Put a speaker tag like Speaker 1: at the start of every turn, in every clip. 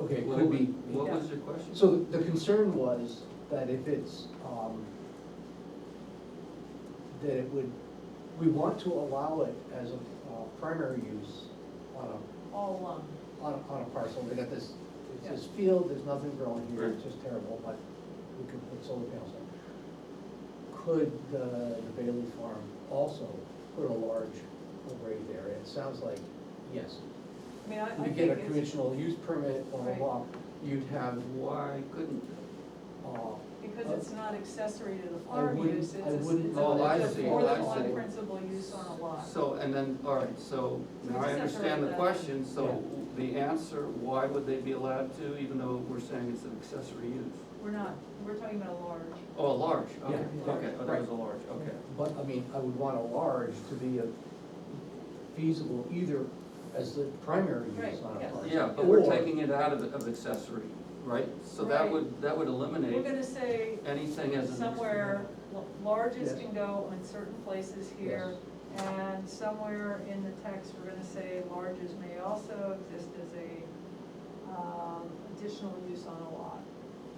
Speaker 1: Okay,
Speaker 2: What
Speaker 1: could
Speaker 2: wa-
Speaker 1: be.
Speaker 2: What was your question?
Speaker 1: So the concern was that if it's, um, that it would, we want to allow it as a uh, primary use on
Speaker 3: all along.
Speaker 1: a, on a, on a parcel, they got this, it's this field, there's nothing growing here, it's just terrible, but we could put solar panels on. Could the, the Bailey Farm also put a large array there? It sounds like, yes.
Speaker 3: I mean, I, I
Speaker 1: You
Speaker 3: think
Speaker 1: get a
Speaker 3: it's,
Speaker 1: conditional use permit, blah, blah,
Speaker 3: Right.
Speaker 1: blah, you'd have,
Speaker 2: Why couldn't
Speaker 1: uh,
Speaker 3: because it's not accessory to the
Speaker 1: I
Speaker 3: farm
Speaker 1: wouldn't-
Speaker 3: use, it's,
Speaker 1: I
Speaker 3: a- it's a,
Speaker 1: wouldn't
Speaker 3: it's
Speaker 2: know that.
Speaker 3: a
Speaker 2: Oh, I
Speaker 3: more
Speaker 2: see,
Speaker 3: than
Speaker 2: I see.
Speaker 3: one principal use on a lot.
Speaker 2: So, and then, all right, so now
Speaker 3: So we
Speaker 2: I
Speaker 3: separate
Speaker 2: understand the
Speaker 3: that.
Speaker 2: question, so the answer, why would they be allowed to, even though we're saying it's an accessory use?
Speaker 3: We're not, we're talking about a large.
Speaker 2: Oh, a large, okay,
Speaker 1: Yeah.
Speaker 2: okay, oh, that was a large, okay.
Speaker 1: But, I mean, I would want a large to be a feasible either as the primary use
Speaker 3: Right,
Speaker 1: on a
Speaker 3: yes.
Speaker 1: parcel.
Speaker 2: Yeah, but we're
Speaker 1: or-
Speaker 2: taking it out of, of accessory, right? So that
Speaker 3: Right.
Speaker 2: would, that would
Speaker 3: We're
Speaker 2: eliminate
Speaker 3: gonna say
Speaker 2: anything as an.
Speaker 3: somewhere, l- largest
Speaker 1: Yes.
Speaker 3: can go in certain places here, and somewhere in the text, we're gonna say larges may also exist as a, um, additional use on a lot.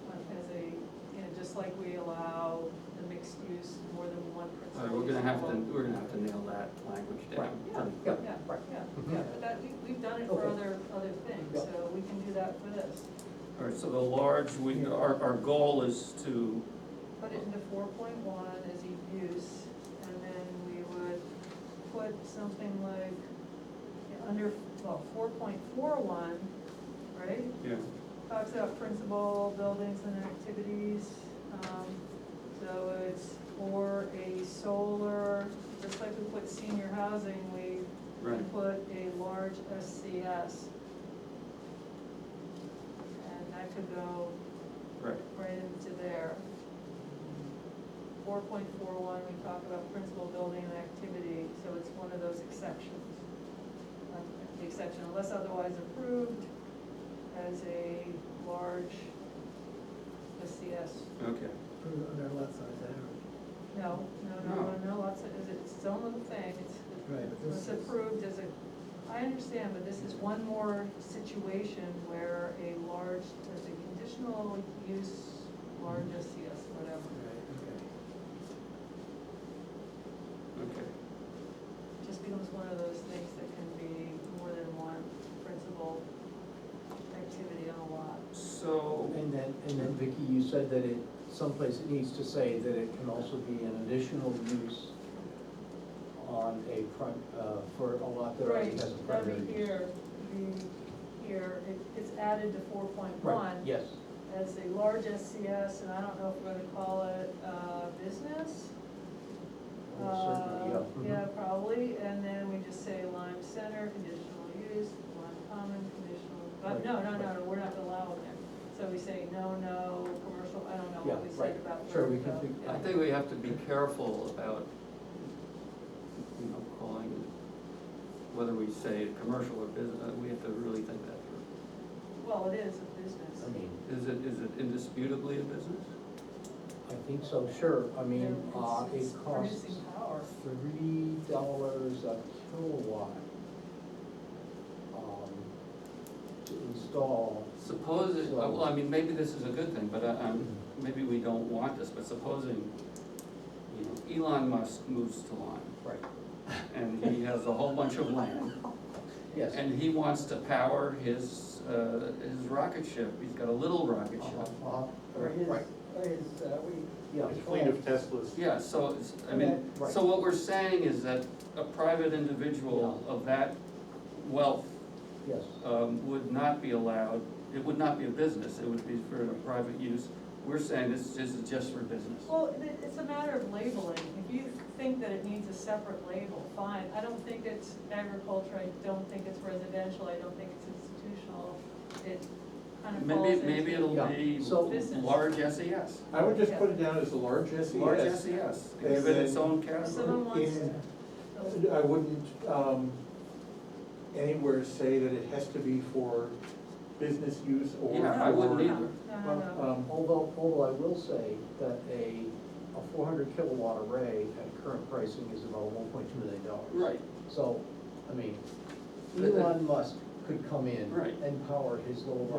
Speaker 3: like As a, you know, just like we allow the mixed use more than one
Speaker 2: All right,
Speaker 3: principal.
Speaker 2: we're gonna
Speaker 3: use
Speaker 2: have to,
Speaker 3: on a lot.
Speaker 2: we're gonna have to nail that language down.
Speaker 3: Right.
Speaker 1: Yeah,
Speaker 3: Yeah,
Speaker 1: right.
Speaker 3: yeah,
Speaker 1: Mhm.
Speaker 3: yeah, but that, we, we've done it for
Speaker 1: Okay.
Speaker 3: other, other things,
Speaker 1: Yeah.
Speaker 3: so we can do that for this.
Speaker 2: All right, so the large, we, our, our goal is to,
Speaker 3: put it into four point one as a use, and then we would put something like, yeah, under, well, four point four one, right?
Speaker 2: yeah,
Speaker 3: Talks about principal buildings and activities, um, so it's for a solar, just like we put senior housing, we
Speaker 2: right.
Speaker 3: put a large SCS. And that could go
Speaker 2: Right,
Speaker 3: right into there. Four point four one, we talk about principal building and activity, so it's one of those exceptions. Um, The exception, unless otherwise approved, as a large, SCS.
Speaker 2: okay.
Speaker 4: Put it under lot size, I don't,
Speaker 3: No, no, no,
Speaker 2: No.
Speaker 3: no, no, lots of, is it, it's its own little thing, it's,
Speaker 4: right, but this
Speaker 3: it's
Speaker 4: is.
Speaker 3: approved as a, I understand, but this is one more situation where a large, there's a conditional use, large SCS, whatever.
Speaker 4: Right,
Speaker 2: Okay,
Speaker 3: just becomes one of those things that can be more than one principal activity on a lot.
Speaker 2: so,
Speaker 1: And then, and then Vicky, you said that it, someplace it needs to say that it can also be an additional use on a prim, uh, for a lot that already has a primary
Speaker 3: Over
Speaker 1: use.
Speaker 3: here, the, here, it, it's added to four point
Speaker 1: Right,
Speaker 3: one
Speaker 1: yes,
Speaker 3: as a large SCS, and I don't know if we're gonna call it, uh, business.
Speaker 1: Well, certainly,
Speaker 3: Uh,
Speaker 1: yeah. Mm-hmm.
Speaker 3: Yeah, probably, and then we just say Lime Center, conditional use, Lime Common, conditional, but
Speaker 1: Right,
Speaker 3: no, no, no,
Speaker 1: right.
Speaker 3: no, we're not allowing it. So we say no, no, commercial, I don't know
Speaker 1: Yeah,
Speaker 3: what we said
Speaker 1: right.
Speaker 3: about.
Speaker 1: Sure, we can
Speaker 3: commercial,
Speaker 1: think-
Speaker 3: yeah.
Speaker 2: I think we have to be careful about, you know, calling it, whether we say commercial or business, we have to really think that through.
Speaker 3: Well, it is a business.
Speaker 1: I mean,
Speaker 2: Is it, is it indisputably a business?
Speaker 1: I think so, sure, I mean,
Speaker 3: They're-
Speaker 1: uh, it
Speaker 3: it's
Speaker 1: costs
Speaker 3: Producing power.
Speaker 1: three dollars a kilowatt, um, to install
Speaker 2: Suppose, it- well, I mean, maybe this is a good thing, but I, I'm, maybe we don't want this, but supposing, you know, Elon Musk moves to Lyme,
Speaker 1: Right,
Speaker 2: and he has a whole bunch of land,
Speaker 1: yes.
Speaker 2: and he wants to power his, uh, his rocket ship, he's got a little rocket
Speaker 1: Uh-huh,
Speaker 2: ship.
Speaker 1: uh-huh,
Speaker 4: Or his,
Speaker 1: Right,
Speaker 4: or his, uh, we.
Speaker 1: yeah,
Speaker 5: A fleet of Teslas.
Speaker 2: Yeah, so, it's- I mean,
Speaker 1: Okay.
Speaker 2: so what we're saying is that a private individual of that wealth
Speaker 1: yes,
Speaker 2: um, would not be allowed, it would not be a business, it would be for a private use. We're saying this is just for business.
Speaker 3: Well, it, it's a matter of labeling. If you think that it needs a separate label, fine. I don't think it's agriculture, I don't think it's residential, I don't think it's institutional. It kind of falls
Speaker 2: Maybe,
Speaker 3: into.
Speaker 2: maybe it'll
Speaker 1: Yeah,
Speaker 2: be
Speaker 1: so-
Speaker 3: Business.
Speaker 2: large SES,
Speaker 5: I would just put it down as a large SES.
Speaker 2: large SES, give it its own category.
Speaker 3: Someone wants,
Speaker 5: And I wouldn't, um, anywhere say that it has to be for business use or.
Speaker 2: Yeah, I wouldn't
Speaker 5: for,
Speaker 3: no,
Speaker 2: either.
Speaker 3: no, no.
Speaker 5: Um,
Speaker 1: although, although I will say that a, a four hundred kilowatt array at current pricing is about one point two million dollars.
Speaker 2: Right,
Speaker 1: So, I mean,
Speaker 2: But-
Speaker 1: Elon Musk could come in
Speaker 2: Right.
Speaker 1: and power his little rocket